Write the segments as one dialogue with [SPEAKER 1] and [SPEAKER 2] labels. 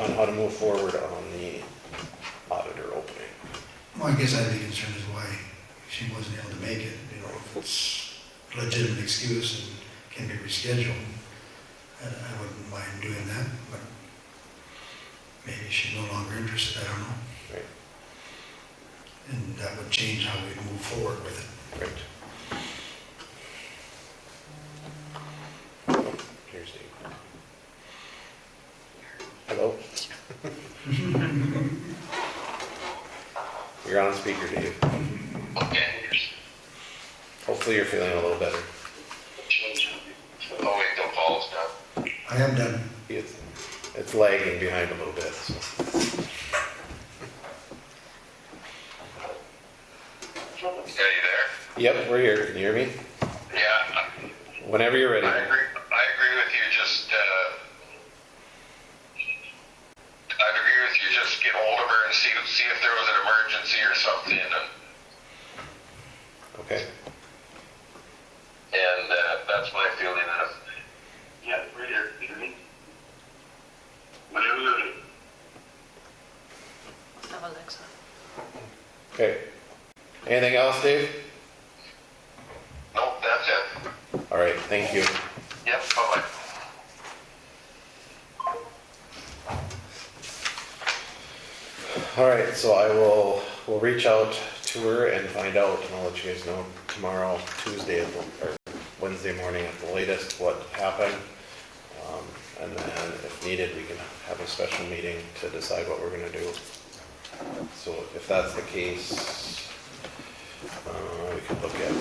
[SPEAKER 1] on how to move forward on the auditor opening.
[SPEAKER 2] Well, I guess I'd be concerned is why she wasn't able to make it, you know, if it's a legitimate excuse and can be rescheduled. I I wouldn't mind doing that, but maybe she's no longer interested, I don't know.
[SPEAKER 1] Right.
[SPEAKER 2] And that would change how we move forward with it.
[SPEAKER 1] Right. Oh, Here's Dave. Hello? You're on speaker, Dave.
[SPEAKER 3] Okay.
[SPEAKER 1] Hopefully you're feeling a little better.
[SPEAKER 3] Oh, wait, don't follow us now.
[SPEAKER 2] I am done.
[SPEAKER 1] It's, it's lagging behind a little bit, so.
[SPEAKER 3] Yeah, you there?
[SPEAKER 1] Yep, we're here. Can you hear me?
[SPEAKER 3] Yeah,
[SPEAKER 1] Whenever you're
[SPEAKER 3] I
[SPEAKER 1] ready.
[SPEAKER 3] agree, I agree with you, just, uh, I'd agree with you, just get hold of her and see, see if there was an emergency or something, and,
[SPEAKER 1] Okay.
[SPEAKER 3] and, uh, that's my feeling uh. of. Yeah, right here, you mean?
[SPEAKER 4] I'm Alexa.
[SPEAKER 1] Okay. Anything else, Dave?
[SPEAKER 3] Nope, that's it.
[SPEAKER 1] All right, thank you.
[SPEAKER 3] Yep, bye-bye.
[SPEAKER 1] All right, so I will, will reach out to her and find out, and I'll let you guys know tomorrow, Tuesday, at the- or Wednesday morning at the latest, what happened. Um, And then if needed, we can have a special meeting to decide what we're gonna do. So if that's the case, uh, we could look at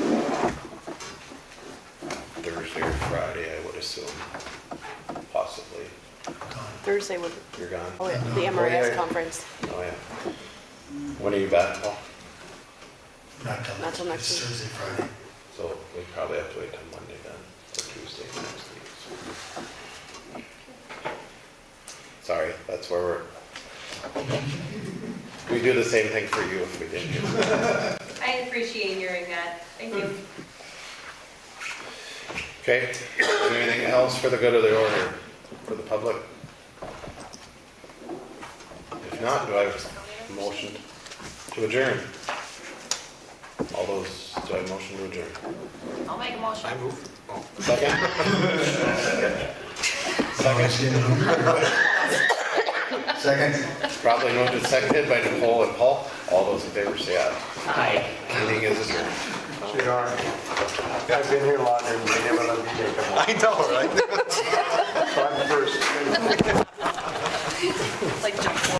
[SPEAKER 1] Thursday or Friday, I would assume, possibly.
[SPEAKER 2] Gone.
[SPEAKER 5] Thursday would,
[SPEAKER 1] You're gone?
[SPEAKER 5] oh, yeah, the
[SPEAKER 1] Oh, yeah.
[SPEAKER 5] MRS conference.
[SPEAKER 1] Oh, yeah. When are you back, Paul?
[SPEAKER 2] Not till.
[SPEAKER 5] Not till next
[SPEAKER 2] it's
[SPEAKER 5] week.
[SPEAKER 2] Thursday, Friday.
[SPEAKER 1] So we probably have to wait till Monday then, or Tuesday next week. so. Sorry, that's where we're. We do the same thing for you if we didn't.
[SPEAKER 6] I appreciate hearing that. Thank you.
[SPEAKER 1] Okay, is there anything else for the good of the order, for the public? If not, do I have a motion to adjourn? All those, do I have a motion to adjourn?
[SPEAKER 4] Hmm. I'll make a motion.
[SPEAKER 1] Second? Second?
[SPEAKER 2] Second?
[SPEAKER 1] Probably moved and seconded by Nicole and Paul. All those in favor say aye. Aye. Meeting is adjourned.
[SPEAKER 7] You are. I've been here longer than they never let me take them. I know, right? So I'm first.
[SPEAKER 4] Like jump